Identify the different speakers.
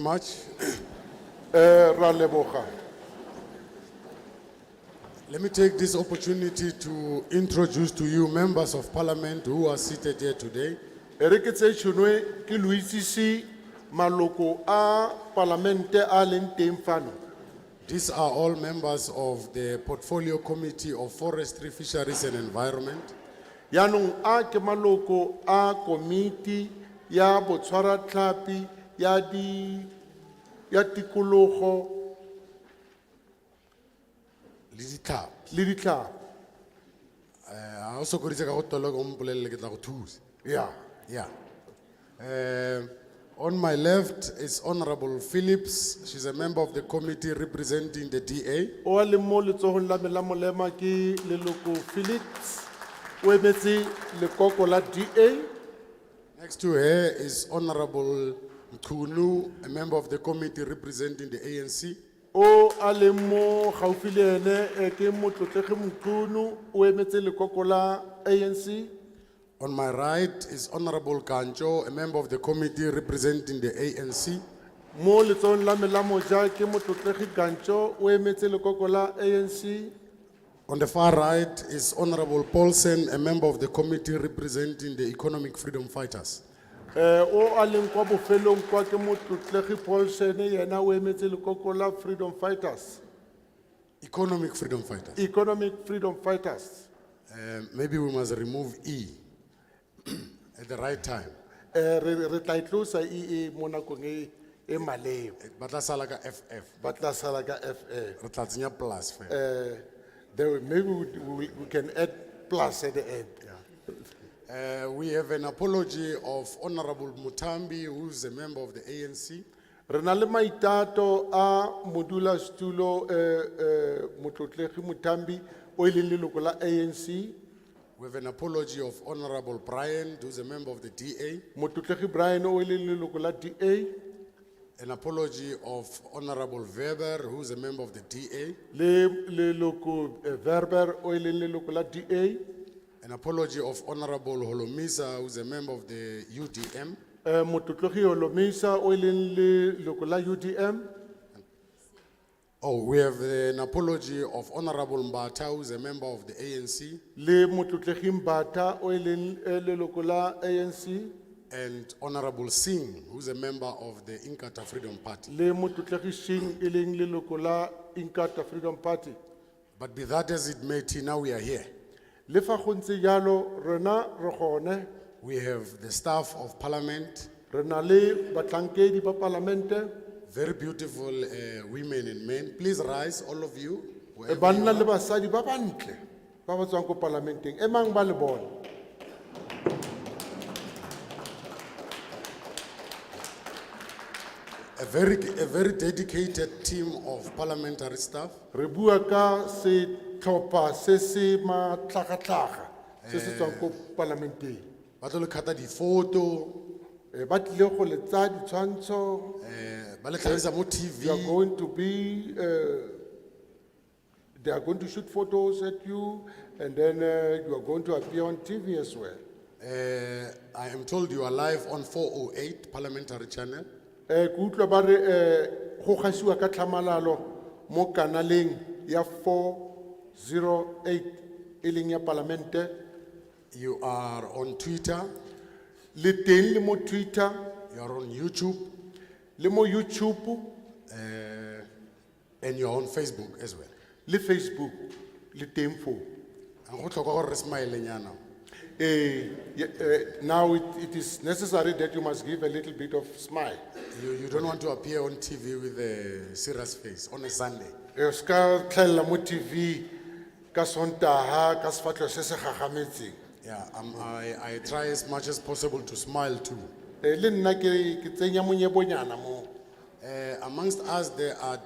Speaker 1: much. Eh, ra leboga. Let me take this opportunity to introduce to you members of parliament who are seated here today.
Speaker 2: E re ke tse tshunwe ke lo itsise maloko a palamente a leng teng fano
Speaker 1: These are all members of the Portfolio Committee of Forestry, Fisheries and Environment.
Speaker 2: yaanong a ke maloko a komiti ya botshwaratlhapi ya di ya tikologo
Speaker 1: Lizzy Tlhap.
Speaker 2: le ditlhapo
Speaker 1: I also go ritse ka go tola go mpolelle ke tla go thusa.
Speaker 2: ya
Speaker 1: Yeah. Um, on my left is Honorable Phillips. She's a member of the committee representing the DA.
Speaker 2: o a leng mo letsogong la me la molema ke leloko felix o emetse lekoko la da
Speaker 1: Next to her is Honorable Mkunu, a member of the committee representing the ANC.
Speaker 2: o a leng mo gaufi le ene eh, ke motlotlege mokunu o emetse lekoko la anc
Speaker 1: On my right is Honorable Kancho, a member of the committee representing the ANC.
Speaker 2: mo letsogong la me la moja ke motlotlege kantso o emetse lekoko la anc
Speaker 1: On the far right is Honorable Paulsen, a member of the committee representing the Economic Freedom Fighters.
Speaker 2: Eh, o a leng kwa bofelong kwa ke motlotlege paulson yena o emetse lekoko la freedom fighters
Speaker 1: Economic Freedom Fighters.
Speaker 2: economic freedom fighters
Speaker 1: Um, maybe we must remove E at the right time.
Speaker 2: Eh, re re tla itlosa ee mo nakong e- e maleo
Speaker 1: But that's like a FF.
Speaker 2: ba tla sala ka fa
Speaker 1: Re tla tsenya plus fela.
Speaker 2: there maybe we, we, we can add plus at the end
Speaker 1: Uh, we have an apology of Honorable Mutambi, who's a member of the ANC.
Speaker 2: re na le maitato a modulasetulo eh, eh, motlotlegi mothambi o e leng leloko la anc
Speaker 1: We have an apology of Honorable Brian, who's a member of the DA.
Speaker 2: motlotlegi brian o e leng leloko la da
Speaker 1: An apology of Honorable Weber, who's a member of the DA.
Speaker 2: le leloko eh, verber o e leng leloko la eh, da
Speaker 1: An apology of Honorable Holomisa, who's a member of the UDM.
Speaker 2: Eh, motlotlegi olomisa o e leng leloko la udm
Speaker 1: Oh, we have an apology of Honorable Mbata, who's a member of the ANC.
Speaker 2: le motlotlegi mbata o e leng eh, leloko la anc
Speaker 1: And Honorable Singh, who's a member of the Inkatha Freedom Party.
Speaker 2: le motlotlegi sheng e leng leloko la inkatha freedom party
Speaker 1: But be that as it may, Tina, we are here.
Speaker 2: le fa go ntse jalo rena re gone
Speaker 1: We have the staff of parliament,
Speaker 2: re na le batlhankedi ba palamente
Speaker 1: very beautiful uh, women and men. Please rise, all of you. wherever
Speaker 2: eh,
Speaker 1: you
Speaker 2: banna
Speaker 1: are.
Speaker 2: le basadi ba bantle ba ba tswang ko palamenteng e mang ba le bone
Speaker 1: A very, a very dedicated team of parliamentary staff.
Speaker 2: re bua ka setlhopha se se matlhagatlhaga se se tswang ko palamenteng
Speaker 1: Ba tlo le kata di-photo,
Speaker 2: Eh, ba tlile go le tsa ditshwantsho
Speaker 1: eh, ba le tlhagisa mo
Speaker 2: they are
Speaker 1: TV.
Speaker 2: going to be uh, they are going to shoot photos at you and then uh, you are going to appear on tv as well
Speaker 1: Eh, I am told you are live on 408 parliamentary channel.
Speaker 2: Eh, ke utlwa ba re eh, go gasiwa ka tlhamalalo mo kanaleng ya 408 e leng ya palamente
Speaker 1: You are on Twitter,
Speaker 2: le teng le mo twitter
Speaker 1: you are on YouTube,
Speaker 2: le mo youtube
Speaker 1: and you are on Facebook as well.
Speaker 2: le facebook le teng foo
Speaker 1: And go tlhoka gore re smile nyana.
Speaker 2: Eh, ye- eh, now it, it is necessary that you must give a little bit of smile
Speaker 1: You, you don't want to appear on TV with a serious face on a Sunday.
Speaker 2: Eh, o seka tlhelela mo tv ka sontaga ka sefatlho se se gagametseng
Speaker 1: Yeah, um, I, I try as much as possible to smile too.
Speaker 2: Eh, le nna ke ke tsenya monyebonyana moo
Speaker 1: Uh, amongst us, there are